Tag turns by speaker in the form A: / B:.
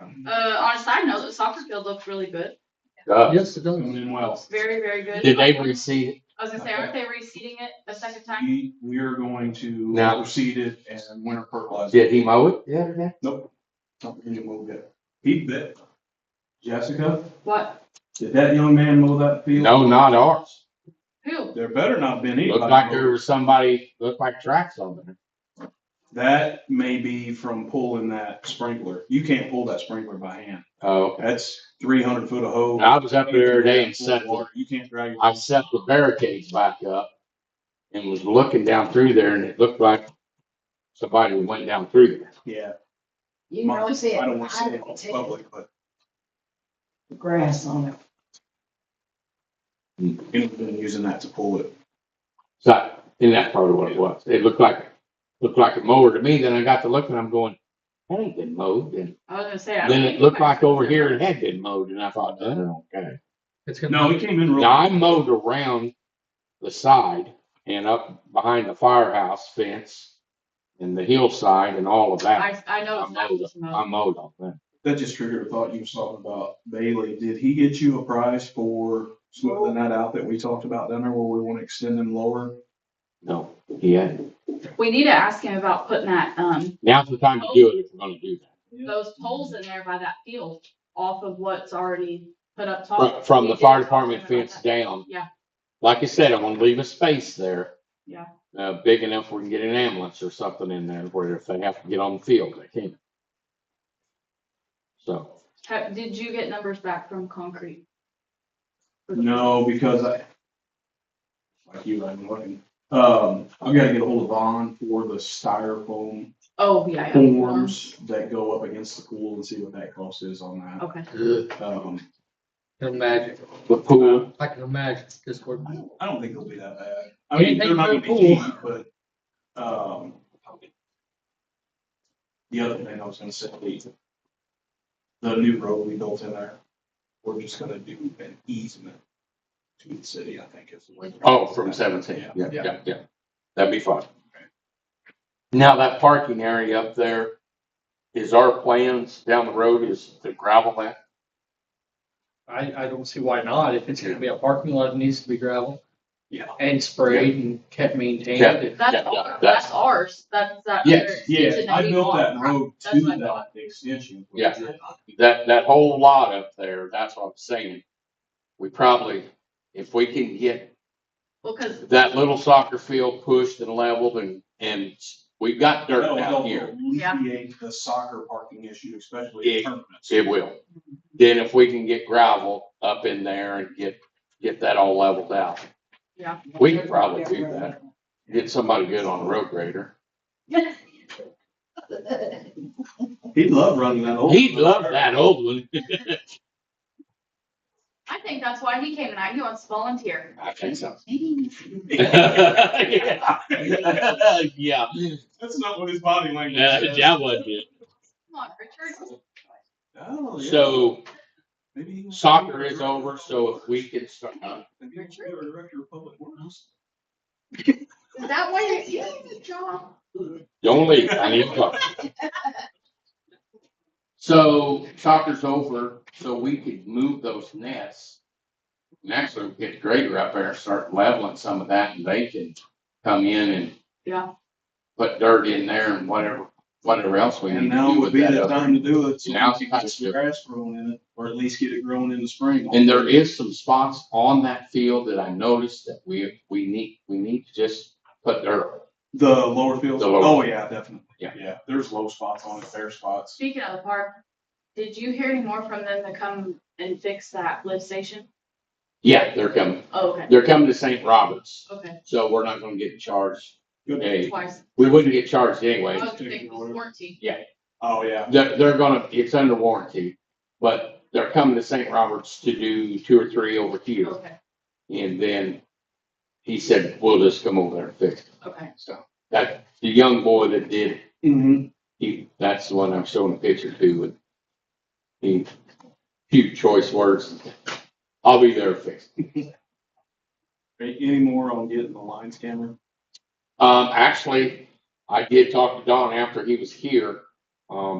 A: Uh, on a side note, the soccer field looked really good.
B: Uh,
C: Yes, it does.
D: Doing in well.
A: Very, very good.
B: Did they receive?
A: I was gonna say, aren't they reseeding it a second time?
D: We, we are going to
B: Now-
D: proceed it and winter fertilizer.
B: Did he mow it? Yeah, yeah.
D: Don't think it will get- He bet. Jessica,
A: What?
D: did that young man mow that field?
B: No, not ours.
A: Who?
D: There better not been anybody.
B: Looked like
D: mow.
B: there was somebody. Looked like tracks on there.
D: That may be from pulling that sprinkler. You can't pull that sprinkler by hand.
B: Oh,
D: That's three hundred foot of hose.
B: I was up there the other day and set the
D: Water. You can't drag. your-
B: I set the barricades back up and was looking down through there and it looked like somebody went down through there.
D: Yeah.
E: You can really see it.
D: I don't want to say it
E: I
D: in
E: take
D: public, but
E: the Grass on it.
D: anyone's been using that to pull it.
B: So, and that's probably what it was. It looked like, looked like a mower to me. Then I got to looking, I'm going, that ain't been mowed. And
A: I was gonna say. I don't
B: then
A: think
B: it looked
A: anybody-
B: like over here it had been mowed and I thought, oh, okay.
C: It's gonna.
D: No, it came in real.
B: Now I mowed around the side and up behind the firehouse fence and the hillside and all of that.
A: I, I know it's not just
B: I
A: mowed.
B: mowed on that.
D: That just triggered a thought you was talking about Bailey. Did he get you a price for smoothing that out that we talked about down there where we want to extend them lower?
B: No, he hadn't.
A: We need to ask him about putting that, um,
B: Now's the time to do it if we're gonna do that.
A: those poles in there by that field off of what's already put up
B: From,
A: top.
B: from the
A: We Oh, did
B: fire
A: talk
B: department
A: to him about
B: fence
A: that.
B: down.
A: Yeah.
B: Like I said, I'm gonna leave a space there.
A: Yeah.
B: Uh, big enough we can get an ambulance or something in there where if they have to get on the field, they can. So,
A: Ha- Did you get numbers back from concrete?
D: No, because I, like you, I'm looking, um, I've got to get a hold of Vaughn for the styrofoam
A: Oh, yeah. yeah.
D: forms that go up against the pool and see what that cost is on that.
A: Okay.
C: Ugh,
D: Um,
C: I Can imagine.
B: the pool,
C: I can imagine this work.
D: I don't- I don't think it'll be that bad. I
C: Can't
D: mean,
C: make
D: they're not gonna
C: it
D: be
C: cool.
D: cheap, but, um, the other thing I was gonna say, the, the new road we built in there, we're just gonna do an easement to the city, I think is. the way-
B: oh, from seventeen, yeah,
C: Yeah.
B: yeah, yeah. That'd be fine. Now, that parking area up there, is our plans down the road is to gravel that?
C: I, I don't see why not. If it's gonna be a parking lot, it needs to be gravel
D: Yeah.
C: and sprayed and kept maintained.
B: Yeah.
C: and-
A: That's,
B: Yeah, yeah,
A: our-
B: that's-
A: that's ours. That's that.
B: Yes,
A: other extension
D: Yeah, I
A: we
D: built
A: bought.
D: that road
A: That's
D: to
A: what I thought.
D: that extension.
B: Yeah. that, that whole lot up there, that's what I'm saying. We probably, if we can get
A: Well, cause
B: that little soccer field pushed and leveled and, and we've got dirt down here,
A: Yeah.
D: Alleviate the soccer parking issue, especially in
B: Yeah.
D: tournaments.
B: it will. Then if we can get gravel up in there and get, get that all leveled out,
A: Yeah.
B: we can probably do that. Get somebody good on a road grader.
D: He'd love running that old.
B: He'd love that old one.
A: I think that's why he came tonight. He wants to volunteer.
B: I think so.
D: That's
B: Yeah. Yeah,
D: not what his body language
B: Uh,
D: says.
B: that was it.
A: Come on, Richard.
D: Oh, yeah.
B: So
D: Maybe he was-
B: soccer is over, so if we can start, uh,
D: Maybe he was the Director of Public Works.
A: Is that why you're doing the job?
B: Don't leave, I need to talk. So soccer's over, so we could move those nets. And actually we get the grader up there and start leveling some of that and they can come in and.
A: Yeah.
B: Put dirt in there and whatever, whatever else we
D: And
B: need to
D: now
B: do
D: would
B: with
D: be
B: that.
D: the
B: other-
D: time to do it. so
B: Now
D: we can
B: it's time to do
D: get some
B: it.
D: Grass grown in it, or at least get it grown in the spring.
B: And there is some spots on that field that I noticed that we, we need, we need to just put dirt.
D: The lower fields,
B: The lower-
D: oh, yeah, definitely.
B: Yeah.
D: Yeah, there's low spots on it, fair spots.
A: Speaking of the park, did you hear any more from them to come and fix that lift station?
B: Yeah, they're coming.
A: Oh, okay,
B: They're coming to St. Roberts,
A: okay,
B: so we're not gonna get charged.
D: Good.
B: Hey,
A: twice. Oh,
B: we wouldn't get charged
A: I
B: anyway.
A: was thinking it was warranty.
D: Oh, yeah.
B: They're, they're gonna, it's under warranty, but they're coming to St. Roberts to do two or three over here.
A: Okay,
B: And then he said, we'll just come over there and fix it.
A: okay.
B: So that, the young boy that did,
D: Mm-hmm.
B: he, that's the one I'm showing a picture to with he, few choice words. I'll be there to fix it.
D: Any more on getting the lines camera?
B: Um, actually, I did talk to Don after he was here. Um,